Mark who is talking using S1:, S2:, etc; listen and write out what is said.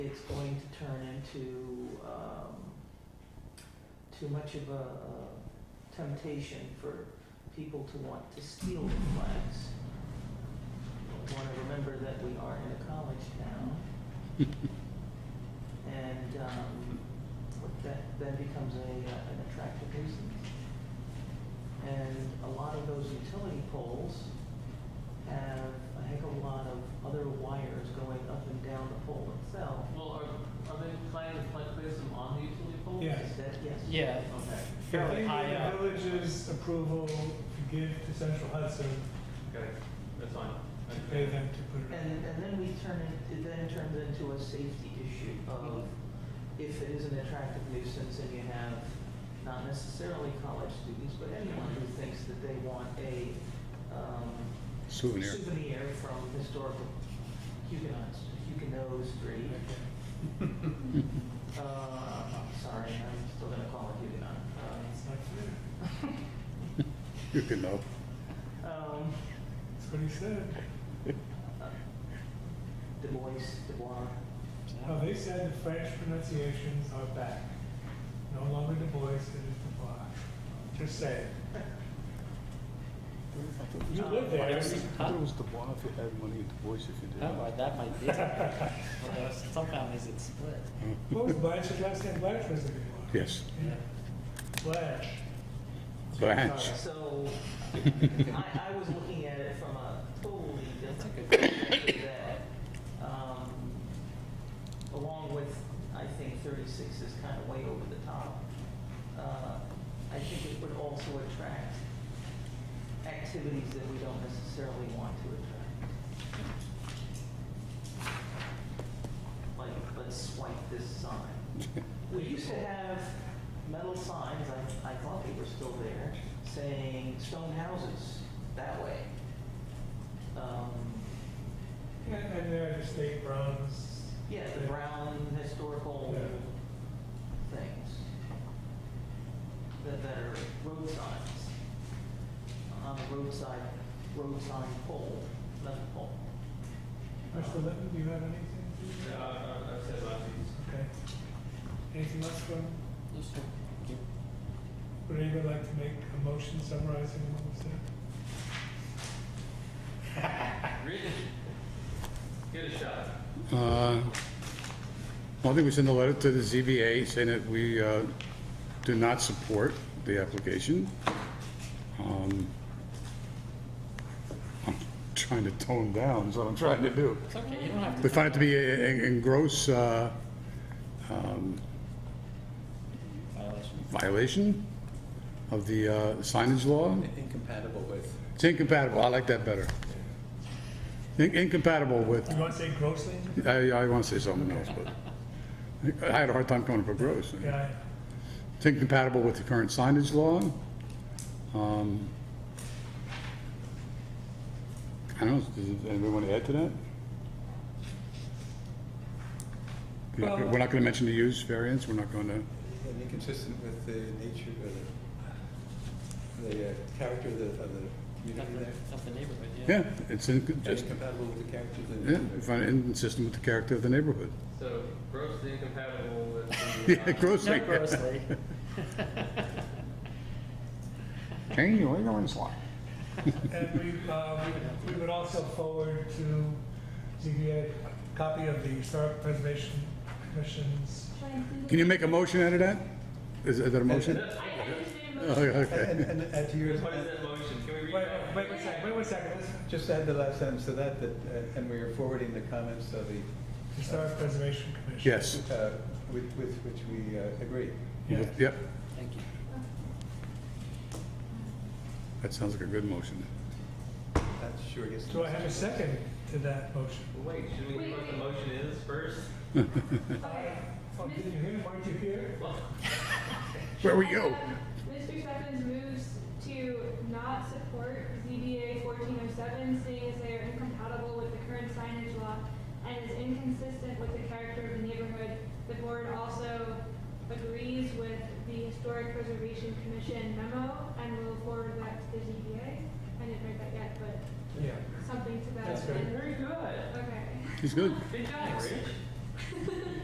S1: it's going to turn into um, too much of a a temptation for people to want to steal the flags. Want to remember that we are in a college town. And um, what that then becomes a, uh, an attractive nuisance. And a lot of those utility poles have a heck of a lot of other wires going up and down the pole itself.
S2: Well, are, are they planning to pla- place them on the utility poles?
S3: Yeah.
S1: Is that, yes?
S4: Yeah,
S2: Okay,
S3: Yeah,
S4: fairly
S3: they
S4: high
S3: need
S4: up.
S3: the village's approval to give to Central Hudson
S2: okay, that's fine.
S3: to pay them to put it
S1: And, and then we turn it, it then turns into a safety issue of if it is an attractive nuisance and you have not necessarily college students, but anyone who thinks that they want a, um,
S5: Souvenir.
S1: souvenir from historical Huguenots, Huguenot Street. Uh, I'm sorry, I'm still gonna call it Huguenot.
S3: on. It's
S1: Uh,
S3: not clear.
S5: You can know.
S1: Um,
S3: That's what he said.
S1: uh, Du Bois, Du Bois,
S3: No, they said the French pronunciations are back. No longer Du Bois, it is Du Bois. Just saying. You live
S5: I
S3: there.
S5: thought it was the Bois if you had money and the Bois if you didn't.
S4: Oh, that might be. Although some families it's split.
S3: What was Blanche's last name? Blanche was it?
S5: Yes,
S3: Yeah. Blanche.
S5: Blanche.
S3: Sorry.
S1: So, I, I was looking at it from a totally different perspective that, um, along with, I think thirty-six is kind of way over the top. Uh, I think it would also attract activities that we don't necessarily want to attract. Like, let's swipe this sign. We used to have metal signs, I, I thought they were still there, saying stone houses that way. Um,
S3: And, and there are the state browns.
S1: Yeah, the brown historical things that, that are road signs. On the roadside, road sign pole, metal pole.
S3: Mr. Litton, do you have anything?
S2: Yeah, I, I, I've said my piece.
S3: Okay. Anything else from,
S4: Yep.
S3: would anybody like to make a motion summarizing what was said?
S2: Read it. Give it a shot.
S5: Uh, One thing, we sent a letter to the ZBA saying that we uh, do not support the application. Um, I'm trying to tone down, is what I'm trying to do.
S4: It's okay, you don't have to.
S5: We find it to be a- a- in gross uh, um,
S4: Violation.
S5: violation of the uh, signage law.
S6: Incompatible with.
S5: It's incompatible, I like that better. In- Incompatible with
S3: You want to say grossly?
S5: I, I want to say something else, but I had a hard time coming up with gross.
S3: Yeah.
S5: It's incompatible with the current signage law. Um, I don't know, does anybody want to add to that? We're not- We're not going to mention the use variance, we're not going to,
S6: And inconsistent with the nature of the, the uh, character of the, of the community there.
S4: Of the neighborhood, yeah.
S5: yeah, it's in-
S6: And
S5: just,
S6: Incompatible with the character of the
S5: yeah,
S6: neighborhood.
S5: we find it inconsistent with the character of the neighborhood.
S2: So grossly incompatible with
S5: Yeah,
S2: the. uh,
S5: grossly.
S4: Not grossly.
S5: Jane, you ain't going to slide.
S3: And we, uh, we would also forward to ZBA a copy of the Historic Preservation Commission's.
S5: Can you make a motion out of that? Is is that a motion? Oh, yeah,
S6: And,
S5: Okay.
S6: and- and add to yours,
S2: What is that motion? Can we read
S3: Wait,
S2: that?
S3: wait, wait a second, wait one second. This
S6: just add the last sentence to that, that, uh, and we are forwarding the comments of the,
S3: Historic Preservation Commission.
S5: Yes.
S6: uh, with, with which we uh, agree.
S3: Yeah.
S5: Yep,
S4: Thank you.
S5: that sounds like a good motion.
S6: That sure gets.
S3: Do I have a second to that motion?
S2: Wait, should we, what the motion is first?
S3: Oh, did you hear, weren't you here?
S2: Well,
S5: Where we go?
S7: Mr. Stephens moves to not support ZBA fourteen oh seven, seeing as they are incompatible with the current signage law and is inconsistent with the character of the neighborhood. The board also agrees with the Historic Preservation Commission memo and will forward that to the ZBA. I didn't write that yet, but
S3: Yeah.
S7: something to that.
S3: That's good.
S7: effect.
S2: very good.
S7: Okay.
S5: He's good.
S2: Good job, Rich.